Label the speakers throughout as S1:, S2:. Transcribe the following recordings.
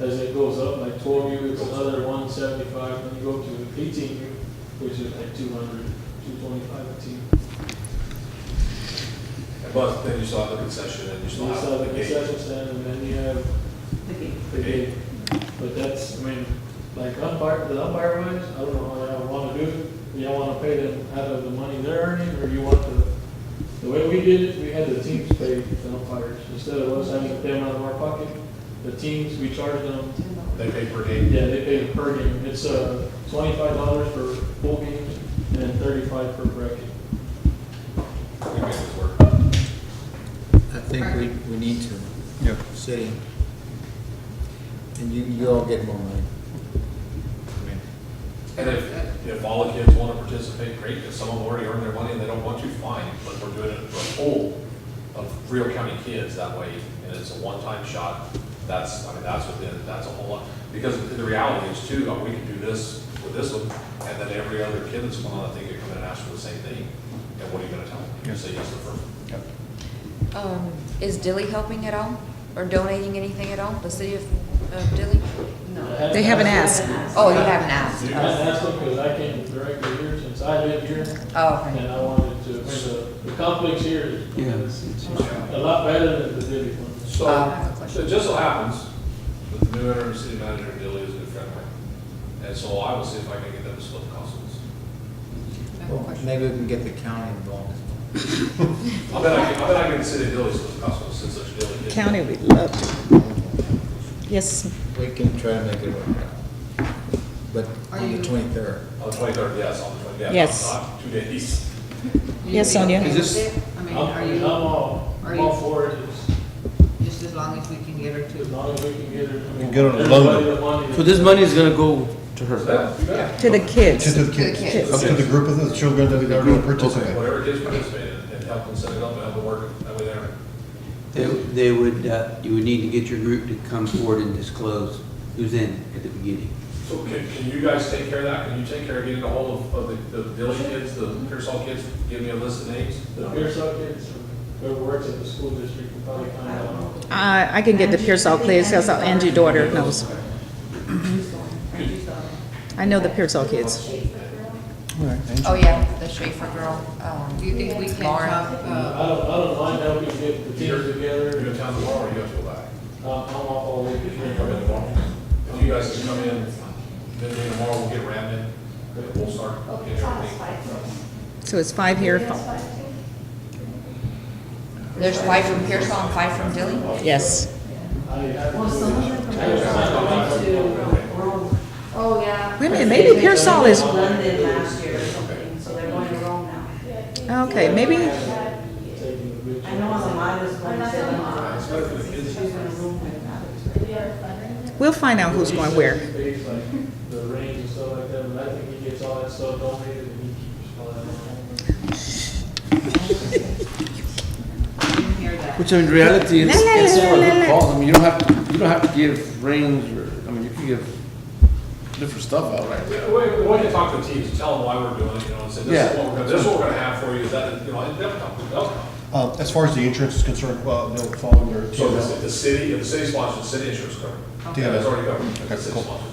S1: as it goes up, like twelve U, it's another one seventy-five, then you go to eighteen U, which is like 200, 225 a team.
S2: But then you still have the concession and you
S1: So
S2: still
S1: you still
S2: have
S1: have
S2: the
S1: the
S2: gate.
S1: concession stand, and then you have the gate. But that's, I mean, like umpire, the umpire wise, I don't know how y'all wanna do it. Y'all wanna pay them out of the money they're earning, or you want the, the way we did it, we had the teams pay the umpires. Instead of us having to pay them out of our pocket, the teams, we charge them,
S2: They pay per game.
S1: yeah, they pay per game. It's, uh, twenty-five dollars for full games and thirty-five for bracket.
S2: We make this work.
S3: I think we, we need to. Yep. City. And you, you all get more money.
S2: I mean, And if, if all the kids want to participate, great, if some of them already earned their money and they don't want to, fine, but we're doing it for a whole of Rio County kids that way, and it's a one-time shot, that's, I mean, that's within, that's a whole lot. Because the reality is too, uh, we can do this with this one, and then every other kid that's going on, I think, could come in and ask for the same thing, and what are you gonna tell them? You say yes to the first.
S4: Um, Is Dilly helping at all, or donating anything at all, the city of of Dilly?
S1: No.
S5: They haven't asked.
S4: Oh, you haven't asked?
S1: I asked them, cause I came directly here since I live here.
S4: Oh, okay.
S1: And I wanted to, I mean, the, the complex here is a lot better than the Diddy one.
S2: So,
S4: Uh, I have a question.
S2: so it just so happens that the new interim city manager, Dilly, is a good friend of mine. And so I will see if I can get them to split the cost of this.
S4: I have a
S3: Well,
S4: question.
S3: Maybe we can get the county involved as
S2: I bet I can, I bet I can sit in Dilly's with the hospital since such Dilly did.
S5: County would love to.
S3: well.
S5: Yes,
S3: We can try to make it work out. But
S4: Are
S3: on the
S4: you-
S3: twenty-third,
S2: On the twenty-third, yes, on the twenty, yeah,
S5: Yes.
S2: not not two days.
S5: Yes, Sonia.
S6: Is
S7: Is this-
S6: it? I mean,
S1: I'm,
S6: are
S1: I'm
S6: you,
S1: all,
S6: are
S1: I'm all
S6: you-
S1: for it, it's-
S6: just as long as we can get her
S1: as
S6: to,
S1: long as we can get it. I mean,
S7: get on the
S1: everybody
S7: loan.
S1: that wanted it.
S7: So this money is gonna go to
S2: So
S7: her?
S2: that, you bet.
S5: to the
S7: To
S5: kids.
S7: the
S4: kids. To the kids.
S7: kids, up
S2: Okay.
S7: to the group of the children that are gonna participate.
S2: Whatever kids participate in, and help them set it up and help them work it that way there.
S8: They they would, uh, you would need to get your group to come forward and disclose who's in at the beginning.
S2: So can, can you guys take care of that? Can you take care of getting a hold of, of the, the Dilly kids, the Pearsall kids? Give me a list of names.
S1: The Pearsall kids, or whoever works at the school district can probably find out.
S5: I, I can get the Pearsall kids, because Angie's daughter knows. I know the Pearsall kids.
S4: Oh, yeah, the Schaefer girl. um,
S6: do you think we can
S4: Lauren.
S6: talk, uh,
S1: I don't, I don't mind helping get the teams
S2: Are you
S1: together,
S2: in town tomorrow or you have to go back?
S1: I'm, I'm all for it.
S2: If you can come in tomorrow, if you guys can come in, then tomorrow we'll get ramming, and we'll start getting everything.
S5: So it's five here.
S4: There's five from Pearsall and five from Dilly?
S5: Yes.
S1: I- I-
S9: Oh, yeah.
S5: Wait a minute, maybe Pearsall is,
S9: London last year or something, so they're going to Rome now.
S5: okay, maybe,
S1: taking the big-
S9: I know on the minus one,
S2: It's better for the kids.
S9: she's in a room with others.
S5: we'll find out who's going where.
S1: Things like The range and stuff like that, but I think he gets all that stuff donated and he keeps all that.
S6: you hear that?
S7: Which in reality, it's,
S5: La, la,
S7: it's
S5: la,
S7: sort of
S5: la, la.
S7: a call, I mean, you don't have, to you don't have to give range or, I mean, you can give different stuff out, right?
S2: We, we, we want to talk to the teams, tell them why we're doing it, you know, and say, this is
S7: Yeah.
S2: what we're gonna, this is what we're gonna have for you, is that, you know, and they'll come, they'll come.
S7: Um,
S10: Uh, As far as the insurance is concerned, well, they'll follow their
S2: So if the,
S10: TML.
S2: if the city, if the city sponsors, the city insurance covered.
S10: Okay.
S2: That's already covered, if the
S10: Okay,
S2: city
S10: cool.
S2: sponsored.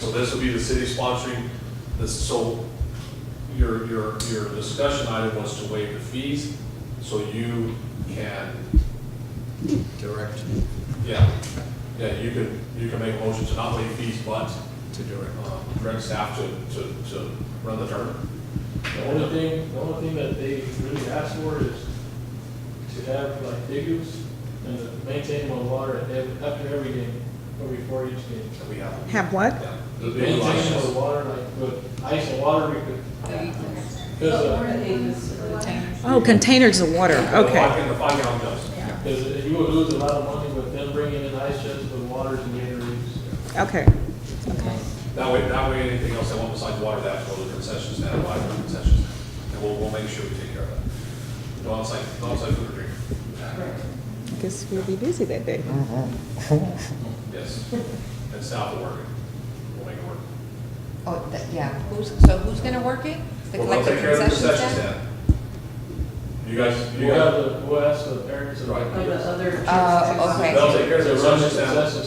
S2: So this would be the city sponsoring this, so your, your, your discussion item was to waive the fees, so you can,
S3: direct
S2: yeah, yeah, you can, you can make a motion to not waive fees, but
S3: to direct.
S2: um, direct staff to, to, to run the tournament.
S1: The only thing, the only thing that they really ask for is to have like figures and to maintain well water at ev- after every game or before each game.
S2: And we have.
S5: Have what?
S2: yeah, the big
S1: Maintain
S2: license.
S1: well water, like with ice and water, we could,
S6: So you can-
S1: because, uh,
S5: Oh, containers of water,
S2: Five
S5: okay.
S2: gallon- five gallon jugs.
S1: because you would lose a lot of money with them bringing in ice chests with waters and Gatorades.
S5: Okay, okay.
S2: That way, that way, anything else they want besides water, that go to the concession stand, buy from the concession stand. And we'll, we'll make sure we take care of that. No outside, no outside food or drink.
S5: I guess we'll be busy that day.
S2: Yes. And staff will work it. We'll make it work.
S4: Oh, that- yeah, who's, so who's gonna work it? The
S2: We'll we'll take
S4: collective
S2: care of the
S4: concession stand?
S2: You guys, you
S1: We'll have
S2: guys,
S1: the, we'll ask the parents. and-
S2: Right.
S9: Of the other.
S4: Uh, okay.
S2: they'll take care of the
S1: To run
S2: concession stand.
S1: concession